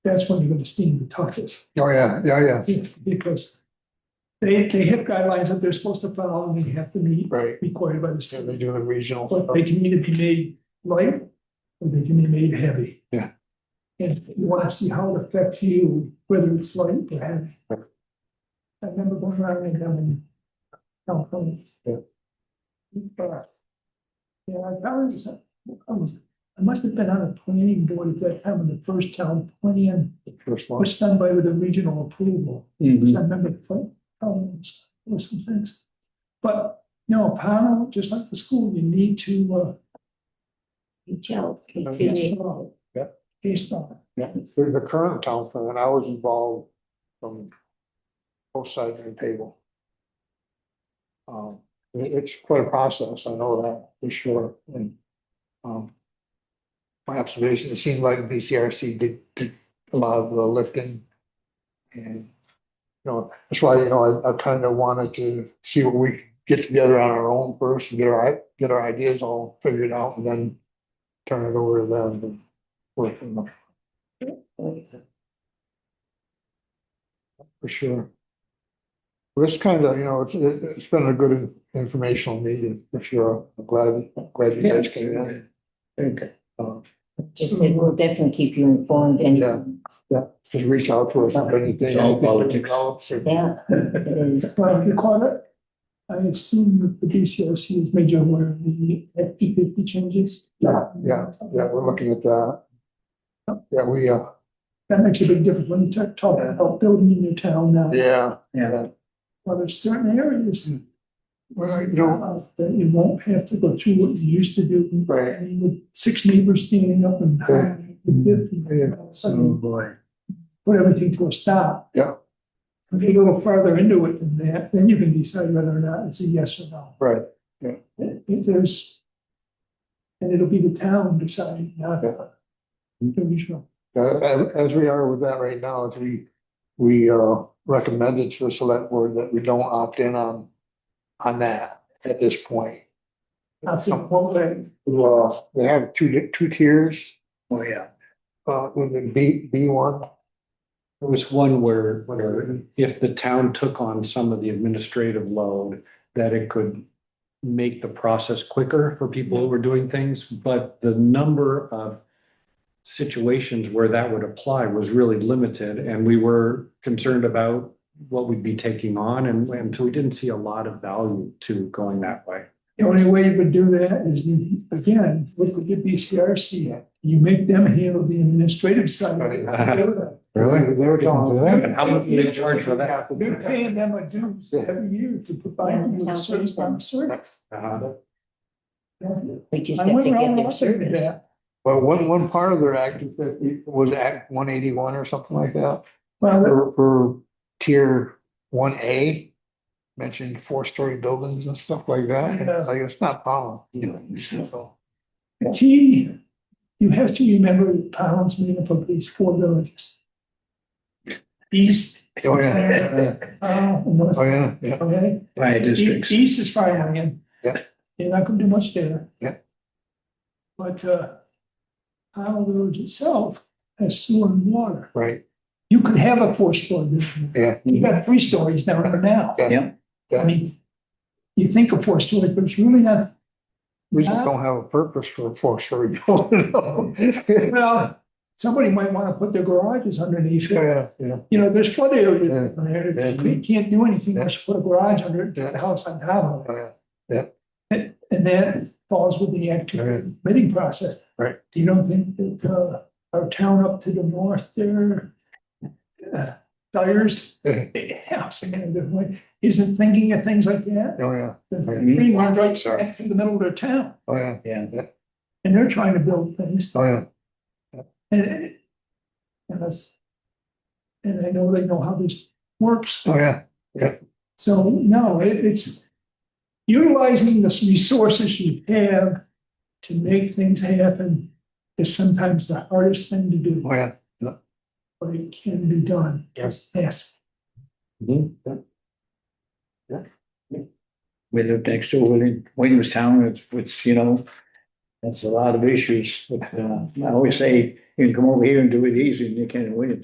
that's when you're gonna steam the touches. Oh, yeah, yeah, yeah, Because they, they have guidelines that they're supposed to follow and they have to meet right. required by the Yeah, state. They do the regional. But they can either be made light or they can be made heavy. Yeah. And if you want to see how it affects you, whether it's light or heavy. Right. I remember going around and having. California. Yeah. But, Yeah, I probably was, I was, I must have been on the planning board at that time when the first town plan First one. was done by with a regional approval. Mhm. I remember, problems or some things. But, no, panel, just like the school, you need to, uh, Gelled. based on. Yeah. Based on. Yeah, The the current town plan, I was involved from both sides of the table. Um, it- it's quite a process, I know that for sure, and, um. My observation, it seemed like BCRC did, did a lot of the lifting. And, you know, that's why, you know, I, I kind of wanted to see what we could get together on our own first, and get our, i- get our ideas all figured out, and then. Turn it over to them and work from there. For sure. Well, This kind of, you know, it's, it- it's been a good informational meeting, for sure. I'm glad, I'm glad you guys came in. They Um, said, we'll definitely keep you informed Yeah. and, Just reach out to us if anything. It's all anything politics. develops or- yeah, it is. But you call it, I assume that the BCRC has E made you aware of the P fifty changes. Yeah, Yeah, we're looking at that. Yeah, we, uh, That makes a big difference when you talk, talk about building in your town now. yeah, Yeah, Well, there's certain areas well, you know, uh, that you won't have to go through what you used to do. right. I mean, with six neighbors standing up and Yeah. nine, and fifty, Yeah. all of a oh sudden, boy. put everything to a stop. Yeah. If you get a little farther into it than that, then you can decide whether or not it's a yes or no. Right. If there's, and it'll be the town deciding, not the the regional. Uh, as, as we are with that right now, it's we, we, uh, recommended to the select board that we don't opt in on, on that at this point. I think one way, Well, they have two, di- two tiers, Oh, yeah. uh, with the B, B one. There was one where, where if the town took on some of the administrative load, that it could make the process quicker for people who were doing things, but the number of situations where that would apply was really limited, and we were concerned about what we'd be taking on, and, and so we didn't see a lot of value to going that way. the only way you would do that is you, again, look at the BCRC. You make them handle the administrative side. of it. Really? They were telling us that. And how much do they charge for that? You're paying them a dues every year to provide you with a service on service. Uh, We just I have went to get around their looking at service. that. Well, one, one part of their act is that it was Act one eighty-one or something like that, Well, for, for tier one A. Mentioned four-story buildings and stuff like that, and it's like, it's not Oh, following. So, the key, you have to remember that Pownds made up of these four villages. East, Oh, yeah, yeah. Powell, and North, Oh, yeah, yeah. okay? By E- districts. East is farmland. Yeah. You're not gonna do much there. Yeah. But, uh, Powell Village itself has sewer and water. Right, You could have a four-story building. yeah, You got three stories down there now. Yeah. Yeah. I mean, you think of four-story, but it's really not, we just don't have a purpose for a four-story building. Oh, well, somebody might wanna put their garages underneath it. Yeah, yeah, You know, there's flood areas Yeah. down there. that Yeah. You can't do anything unless you put a garage under it, Yeah. the house on top of it. yeah. And, and that falls with the active bidding process. Right. Do you don't think that, uh, our town up to the north there, uh, Dyer's, Yeah. big house, in a good way, isn't thinking of things like that? Oh, yeah, The the Mhm. three miles Sorry. right through the middle of their town, oh, yeah, and they're trying to build things, oh, yeah. and it, and that's, and I know they know how this works, Oh, yeah. so, no, it, it's utilizing the resources you have to make things happen is sometimes the hardest thing to do, Oh, yeah. but it can be done. Yes. Yes. We lived next to William, Williamstown, it's, it's, you know, That's a lot of issues. but, uh, I always say, you can come over here and do it easy and you can't win it.